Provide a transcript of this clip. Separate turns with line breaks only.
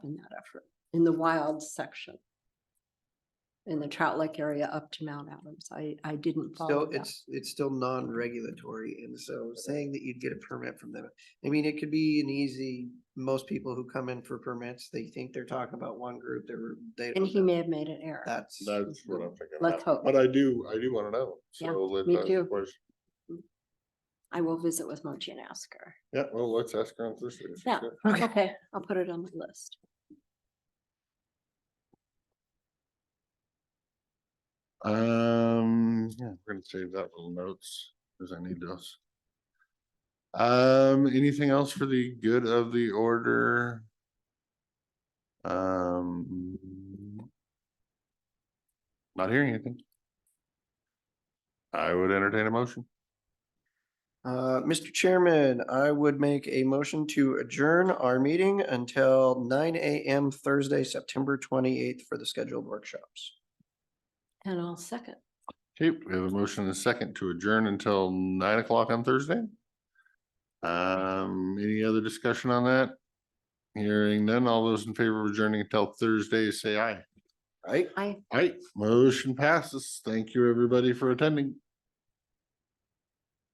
in that effort, in the wild section. In the Trout Lake area up to Mount Adams. I, I didn't follow
Still,
that.
it's, it's still non-regulatory, and so saying that you'd get a permit from them, I mean, it could be an easy, most people who come in for permits, they think they're talking about one group, they're, they.
And he may have made an error.
That's,
That's what I'm thinking.
Let's
about.
hope.
But I do, I do wanna know.
Yeah,
So let-
me
that's
too.
the question.
I will visit with Mochi and ask her.
Yeah, well, let's ask her on Thursday. if she's
Yeah.
good.
okay,
Okay, I'll put it on my list.
Um, yeah, we're gonna save that little notes, cause I need those. Um, anything else for the good of the order? Um. Not hearing anything. I would entertain a motion.
uh, Mr. Chairman, I would make a motion to adjourn our meeting until nine AM Thursday, September twenty-eighth for the scheduled workshops.
And I'll second.
Okay, we have a motion and a second to adjourn until nine o'clock on Thursday. Um, any other discussion on that? Hearing none, all those in favor of adjourning until Thursday, say aye.
Right?
I
Aye, motion passes. Thank you, everybody, for attending.